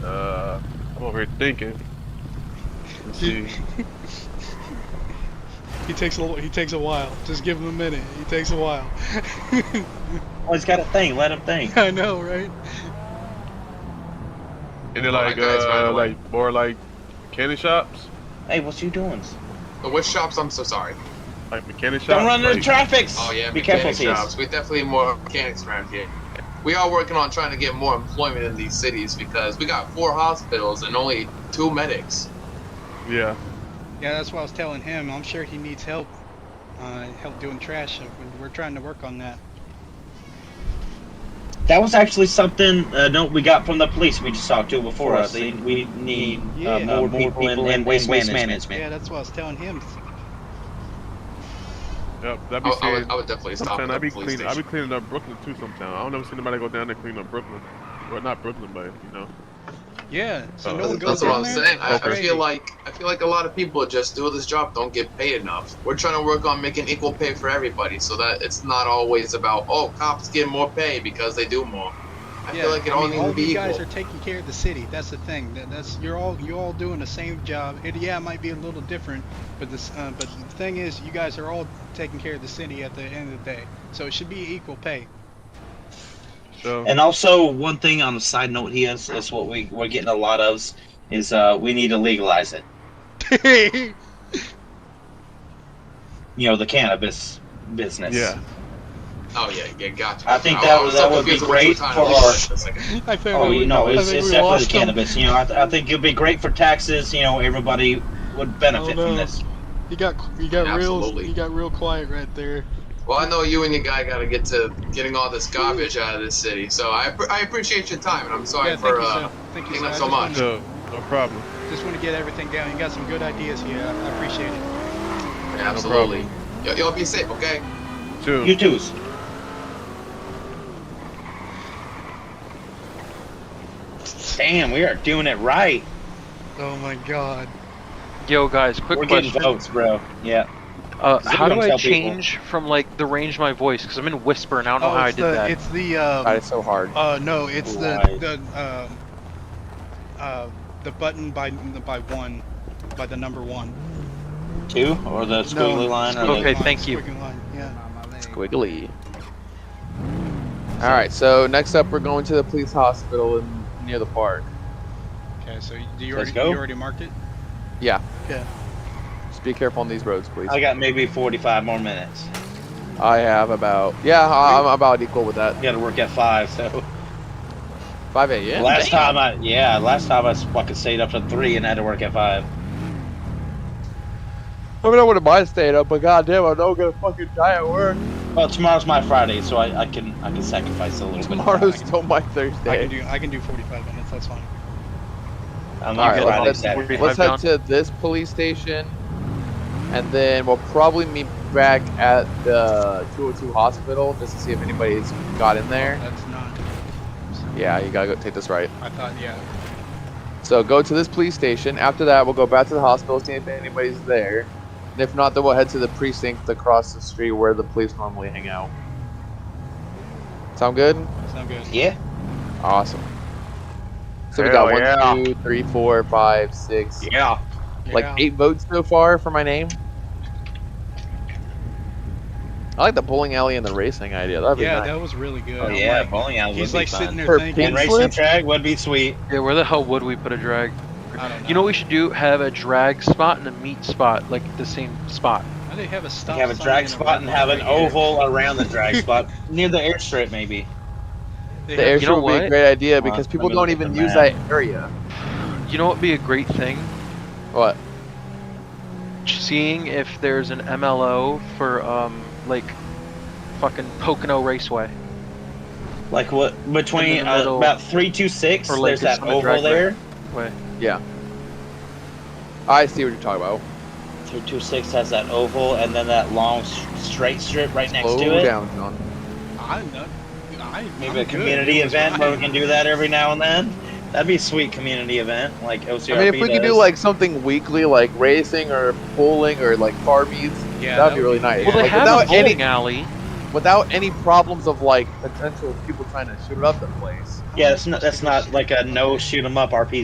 Uh, over here thinking. Let's see. He takes a little, he takes a while. Just give him a minute. He takes a while. Well, he's got a thing. Let him think. I know, right? And they're Oh, like, guys, by the uh, way. like more like candy shops, Hey, what you doing? The which shops? I'm so sorry. like mechanic shops. Don't run into like- traffics. Oh yeah, Be careful, mechanic sis. shops. We definitely need more mechanics around here. We are working on trying to get more employment in these cities because we got four hospitals and only two medics. Yeah, Yeah, that's what I was telling him. I'm sure he needs help. Uh, help doing trash. So we- We're trying to work on that. That was actually something uh, no, we got from the police we just talked to before us. They, we need Yeah. uh, Uh, more, people, in, in waste, management. Yeah, that's what I was telling him. yep. That'd I, be Oh, I saying. would, I would definitely stop at Sometimes the I be police cleaning. I be station. cleaning up Brooklyn too. Sometimes I don't ever see nobody go down there clean up Brooklyn, or not Brooklyn, but you know. Yeah. So Uh, no one goes Oh, That's what down I'm there? saying. I, I Crazy. feel like I feel like a lot of people just do this job don't get paid enough. We're trying to work on making equal pay for everybody so that it's not always about oh cops get more pay because they do more. I yeah, feel like it all mean, needs all to be you guys equal. are taking care of the city. That's the thing. That, that's you're all you all doing the same job. It, yeah, it might be a little different, but this uh, but the thing is, you guys are all taking care of the city at the end of the day. So it should be equal pay. So And also, one thing on a side note here is, is what we, we're getting a lot of is uh, we need to legalize it. You know, the cannabis business. yeah, Oh yeah, yeah, gotcha. I think I- that I was would- that so would be confused what you were great trying for to do our- for a second. I think Oh, we, you know, it's, I think it's we definitely the lost him. cannabis. You know, I, th- I think it'd be great for taxes. You know, everybody would benefit Oh, no. from this. You got you got real Absolutely. you got real quiet right there. Well, I know you and your guy got to get to getting all this garbage out of this city, so I, I appreciate your time, and I'm sorry yeah, for thank you, uh, sir. Thank you, taking sir. up I so just much. wanted- so no problem. Just want to get everything down. You got some good ideas here. I I appreciate it. absolutely. Y- y'all be safe, okay? Too. You two's. Damn, we are doing it right. Oh my God. Yo, guys, quick we're question. getting votes, bro. Yeah. Uh, Does how do everyone I tell people? change from like the range of my voice? Because I'm in whisper and I don't know how Oh, I it's did the that. it's the um, God, it's so hard. uh no it's Right. the the um uh the button by by one by the number one. Two or the squiggly No, line or Okay, the, thank you. squiggly line, Yeah. Squiggly. All right. So next up, we're going to the police hospital in, near the park. Okay, so you- do you Let's already go. you already marked it? Just be careful on these roads, please. I got maybe 45 more minutes. I have about yeah, I- I'm about equal with that. I got to work at five. So Five a.m. last Damn. time I yeah last time I fucking stayed up to three and had to work at five. I mean, I wouldn't mind staying up, but goddamn, I don't gonna fucking die at work. Well, tomorrow's my Friday, so I, I can I can sacrifice a little Tomorrow's bit. still my I can Thursday. do I can do 45 minutes. That's fine. I'm All on right, Friday, let's- Saturday. Let's head Drive to this police station, and then we'll probably meet back at the 202 hospital just to see if anybody's got in there. That's not. Yeah, you gotta go take this right. I thought yeah. So go to this police station. After that, we'll go back to the hospital, see if anybody's there. And if not, then we'll head to the precinct across the street where the police normally hang out. Sound good? Sound good. Yeah. Awesome. So we Hell got yeah. one, two, three, four, five, six, Yeah. Yeah. like eight votes so far for my name. I like the bowling alley and the racing idea. That'd be yeah, nice. that was really good. Oh, I'm yeah. like- bowling alley he's would like be sitting fun. there For thinking. And pink- racing Slip? track would be sweet. yeah, where the hell would we put a drag? I don't know. You know what we should do? Have a drag spot and a meat spot, like the same spot. Why they have a stop. have a sign drag and a spot red and light have an right here? oval around the drag spot near the airstrip, maybe. They the have- airstrip you know would be a what? great idea Hold on, because let people me don't look at even the use map. that area. You know what would be a great thing? What? Seeing if there's an MLO for um like fucking Pocono Raceway. Like what between In the uh, middle. about three two six? Or like there's that it's on the drag oval there. Way. I see what you're talking about. Three two six has that oval, and then that long s- straight strip right next Slow to it. down, John. I'm not. I, I'm Maybe a good. community It was event where we fine. can do that every now and then. That'd be a sweet community event, like OCRP I mean, if we could do does. like something weekly, like racing or bowling or like bar meets, Yeah, that'd that be would really nice. Well, they like, have a without bowling any alley. without any problems of like potential people trying to shoot up the place. Yeah, that's not that's not like a no shoot 'em up RP